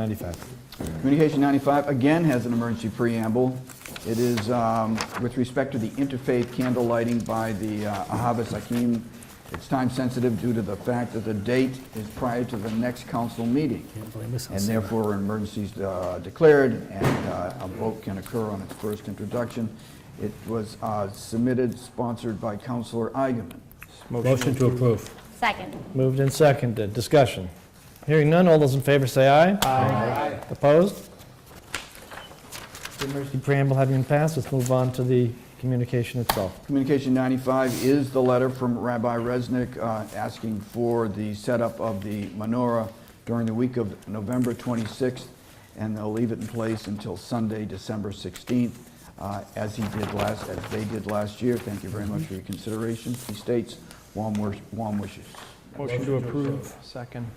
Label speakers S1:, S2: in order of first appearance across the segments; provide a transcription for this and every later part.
S1: 95.
S2: Communication 95, again, has an emergency preamble. It is um, with respect to the interfaith candle lighting by the uh, Ahava Sakim. It's time-sensitive due to the fact that the date is prior to the next council meeting. And therefore, an emergency is uh, declared, and uh, a vote can occur on its first introduction. It was uh, submitted, sponsored by Councilor Eigenman.
S1: Motion to approve.
S3: Second.
S4: Moved and seconded, discussion. Hearing none, all those in favor say aye. Aye. Opposed? The emergency preamble having been passed, let's move on to the communication itself.
S2: Communication 95 is the letter from Rabbi Resnick uh, asking for the setup of the menorah during the week of November 26th, and they'll leave it in place until Sunday, December 16th, uh, as he did last, as they did last year. Thank you very much for your consideration. He states, warm wish- warm wishes.
S1: Motion to approve. Second.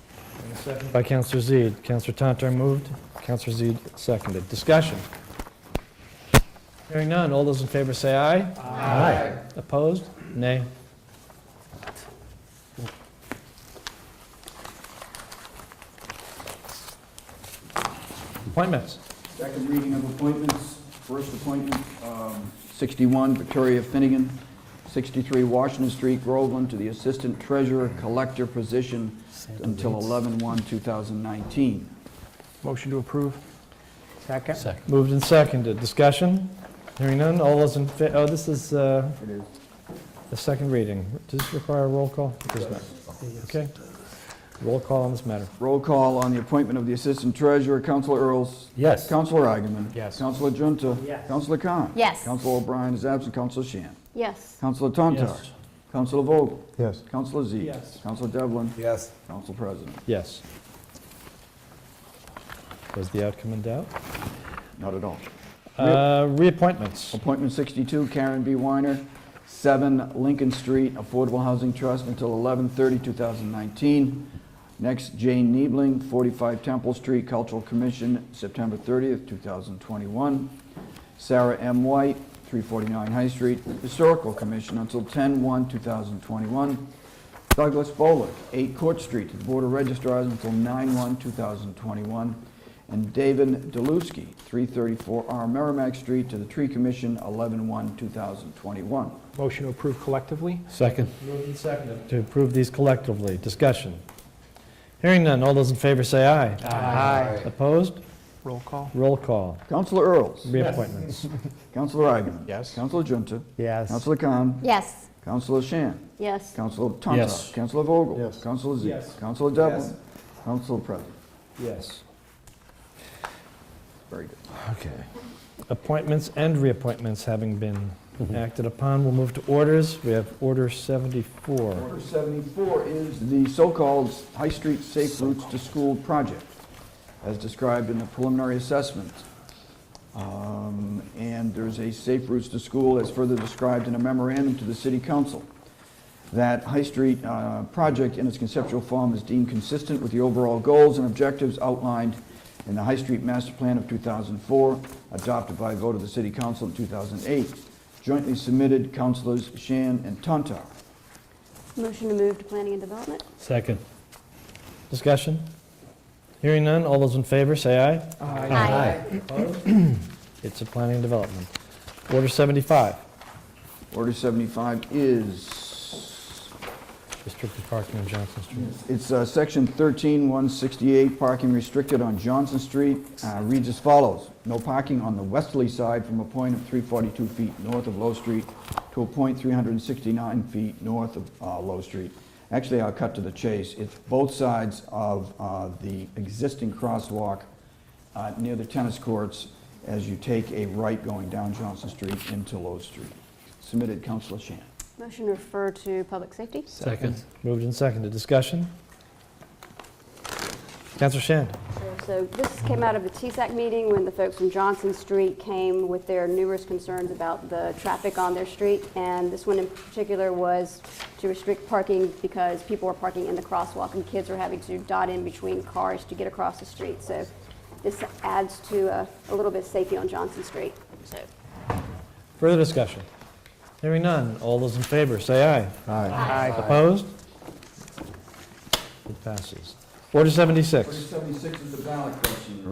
S4: By Counselor Zede, Counselor Tantar moved, Counselor Zede seconded, discussion. Hearing none, all those in favor say aye. Aye. Opposed? Nay. Appointments.
S2: Second reading of appointments. First appointment, um, 61 Victoria Finnegan, 63 Washington Street, Groveland, to the Assistant Treasurer Collector position until 11/1/2019.
S1: Motion to approve.
S5: Second?
S4: Moved and seconded. Discussion? Hearing none. All those in, fa- oh, this is uh,
S2: It is.
S4: the second reading. Does this require a roll call? It does not. Okay. Roll call on this matter.
S2: Roll call on the appointment of the Assistant Treasurer, Counselor Earls.
S5: Yes.
S2: Counselor Agaman.
S5: Yes.
S2: Counselor Junta.
S5: Yes.
S2: Counselor Khan.
S3: Yes.
S2: Counselor O'Brien is absent. Counselor Shan.
S3: Yes.
S2: Counselor Tontar.
S4: Yes.
S2: Counselor Vogel.
S1: Yes.
S2: Counselor Z.
S4: Yes.
S2: Counselor Devlin.
S1: Yes.
S2: Council President.
S4: Yes. Was the outcome in doubt?
S2: Not at all.
S4: Uh, Reappointments.
S2: Appointment 62, Karen B. Weiner, 7 Lincoln Street, Affordable Housing Trust, until 11/30/2019. Next, Jane Niebling, 45 Temple Street, Cultural Commission, September 30th, 2021. Sarah M. White, 349 High Street, Historical Commission, until 10/1/2021. Douglas Bolick, 8 Court Street, to the Board of Registrars until 9/1/2021. And David Deluski, 334 R Merrimack Street, to the Tree Commission, 11/1/2021.
S1: Motion to approve collectively?
S4: Second. Moved and seconded. To approve these collectively. Discussion? Hearing none. All those in favor say aye. Aye. Opposed?
S1: Roll call?
S4: Roll call.
S2: Counselor Earls.
S4: Reappointments.
S2: Counselor Agaman.
S1: Yes.
S2: Counselor Junta.
S5: Yes.
S2: Counselor Khan.
S3: Yes.
S2: Counselor Shan.
S3: Yes.
S2: Counselor Tontar.
S4: Yes.
S2: Counselor Vogel.
S1: Yes.
S2: Counselor Z.
S4: Yes.
S2: Counselor Devlin. Counselor President.
S4: Yes.
S2: Very good.
S4: Okay. Appointments and reappointments having been acted upon, we'll move to orders. We have Order 74.
S2: Order 74 is the so-called High Street Safe Routes to School project, as described in the preliminary assessment. Um, And there's a Safe Routes to School as further described in a memorandum to the city council. That High Street uh, project in its conceptual form is deemed consistent with the overall goals and objectives outlined in the High Street Master Plan of 2004, adopted by a vote of the city council in 2008, jointly submitted councilors Shan and Tontar.
S3: Motion to move to planning and development?
S4: Second. Discussion? Hearing none, all those in favor, say aye.
S3: Aye.
S4: It's a planning and development. Order 75,
S2: Order 75 is,
S4: restricted parking on Johnson Street.
S2: it's uh, section 13168, parking restricted on Johnson Street, uh, reads as follows. No parking on the westerly side from a point of 342 feet north of Low Street to a point 369 feet north of uh, Low Street. Actually, I'll cut to the chase. It's both sides of uh, the existing crosswalk uh, near the tennis courts as you take a right going down Johnson Street into Low Street. Submitted, Councilor Shan.
S3: Motion to refer to public safety?
S4: Second. Moved and seconded, discussion? Counselor Shan?
S3: Sure. So this came out of the TSAC meeting when the folks from Johnson Street came with their numerous concerns about the traffic on their street. And this one in particular was to restrict parking because people were parking in the crosswalk and kids were having to dot in between cars to get across the street. So this adds to uh, a little bit of safety on Johnson Street. So
S4: Further discussion? Hearing none, all those in favor, say aye.
S2: Aye.
S4: Opposed? It passes. Order 76.
S2: Order 76 is the ballot question.